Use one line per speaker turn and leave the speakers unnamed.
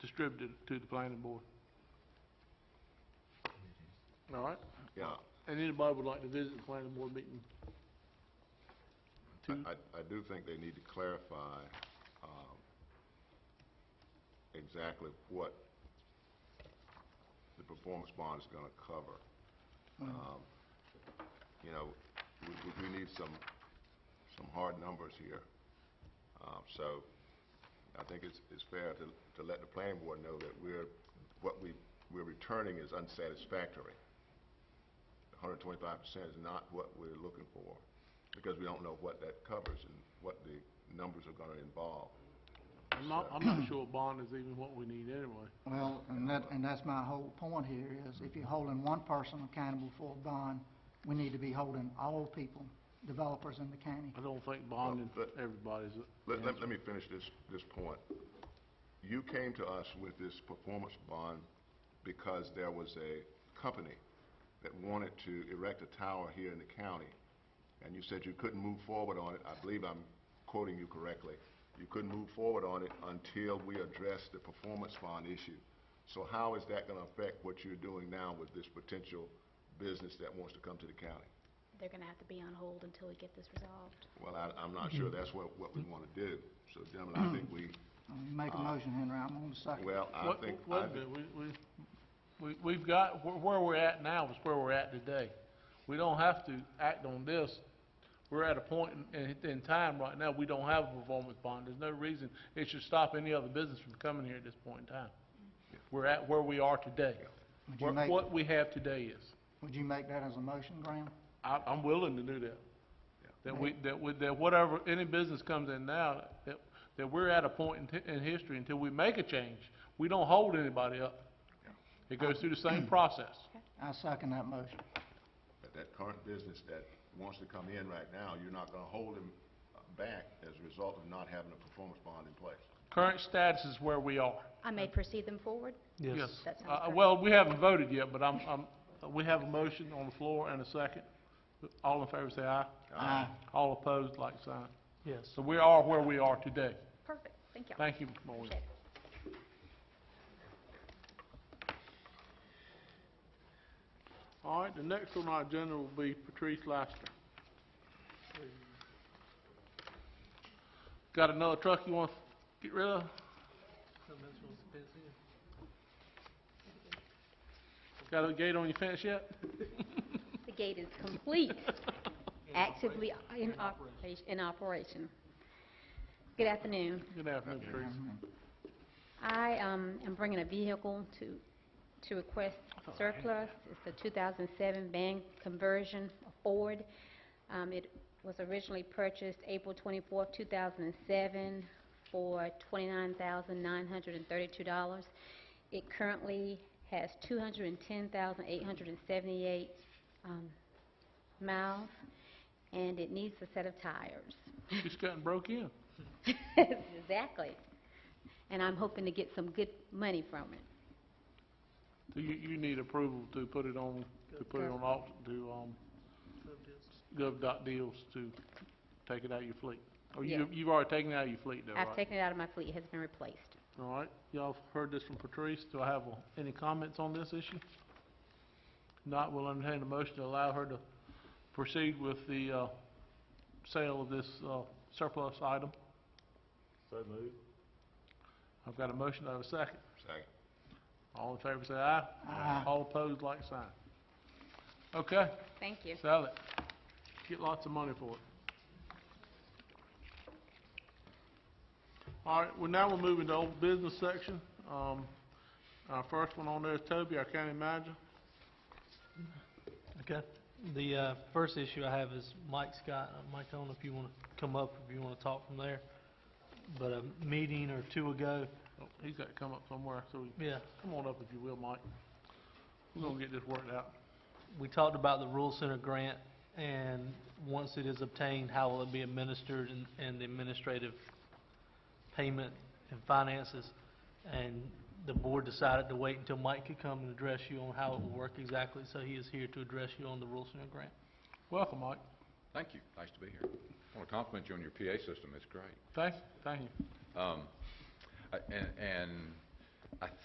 distributed to the planning board. All right?
Yeah,
And anybody would like to visit the planning board meeting?
I,
To-
I- I do think they need to clarify, um, exactly what the performance bond is gonna cover.
Uh, Mm.
Um, You know, we, we- we need some, some hard numbers here. Um, so I think it's, it's fair to, to let the planning board know that we're, what we, we're returning is unsatisfactory. hundred and twenty-five percent is not what we're looking for, because we don't know what that covers and what the numbers are gonna involve.
I'm not, I'm not sure a bond is even what we need anyway.
Well, and that, and that's my whole point here, is if you're holding one person accountable for a bond, we need to be holding all people, developers in the county.
I don't think bonding
Well, but-
everybody's.
Let, let, let me finish this, this point. You came to us with this performance bond because there was a company that wanted to erect a tower here in the county, and you said you couldn't move forward on it, I believe I'm quoting you correctly, you couldn't move forward on it until we address the performance bond issue. So how is that gonna affect what you're doing now with this potential business that wants to come to the county?
They're gonna have to be on hold until we get this resolved.
Well, I, I'm not sure that's what, what we wanna do, so gentlemen, I think we,
And You make a
Uh,
motion, Henry, I'm gonna second.
well, I
What-
think,
Wait
I
a
think
minute, we, we, we, we've got, where, where we're at now is where we're at today. We don't have to act on this. We're at a point in, in, in time right now, we don't have a performance bond. There's no reason it should stop any other business from coming here at this point in time. We're at where we are today.
Would you
What,
make,
what we have today is.
would you make that as a motion, Graham?
I, I'm willing to do that. That we, that we, that whatever, any business comes in now, that, that we're at a point in, t- in history until we make a change, we don't hold anybody up. It goes through the same process.
I second that motion.
that that current business that wants to come in right now, you're not gonna hold them uh, back as a result of not having a performance bond in place.
Current status is where we are.
I may proceed them forward?
Yes.
That sounds
Uh,
perfect.
well, we haven't voted yet, but I'm, I'm, we have a motion on the floor and a second. All in favor say aye.
Uh,
Aye.
All opposed, like sign.
Yes.
So we are where we are today.
Perfect, thank you.
Thank you, Mr. Moore.
Appreciate it.
All right, the next one on our agenda will be Patrice Laster. Got another truck you want to get rid of? Got a gate on your fence yet?
The gate is complete, actively in operation, in operation. Good afternoon.
Good afternoon, Patrice.
I um, am bringing a vehicle to, to request surplus. It's a 2007 van conversion Ford. Um, It was originally purchased April 24, 2007 for $29,932. It currently has 210,878 um, miles, and it needs a set of tires.
Just gotten broke in.
Exactly. And I'm hoping to get some good money from it.
So you, you need approval to put it on, to put it on auction, to, um, gov.deals to take it out of your fleet. Or you,
Yeah.
you've already taken it out of your fleet though, right?
I've taken it out of my fleet, it has been replaced.
All right, y'all have heard this from Patrice. Do I have uh, any comments on this issue? Not, we'll entertain a motion to allow her to proceed with the, uh, sale of this, uh, surplus item.
So moved.
I've got a motion, I have a second.
Second.
All in favor say aye.
Aye.
All opposed, like sign. Okay,
Thank you.
sell it. Get lots of money for it. All right, well, now we're moving to old business section. Um, our first one on there is Toby, our county manager.
Okay. The uh, first issue I have is Mike Scott. Uh, Mike, I don't know if you want to come up, if you want to talk from there. But a meeting or two ago,
Oh, He's got to come up somewhere, so we-
yeah,
come on up if you will, Mike. We're gonna get this worked out.
we talked about the Rural Center grant, and once it is obtained, how will it be administered and- and the administrative payment and finances? And the board decided to wait until Mike could come and address you on how it will work exactly, so he is here to address you on the Rural Center grant.
Welcome, Mike.
Thank you. Nice to be here. I want to compliment you on your PA system. It's great.
Thank, thank you.
Um, I- Um, and- And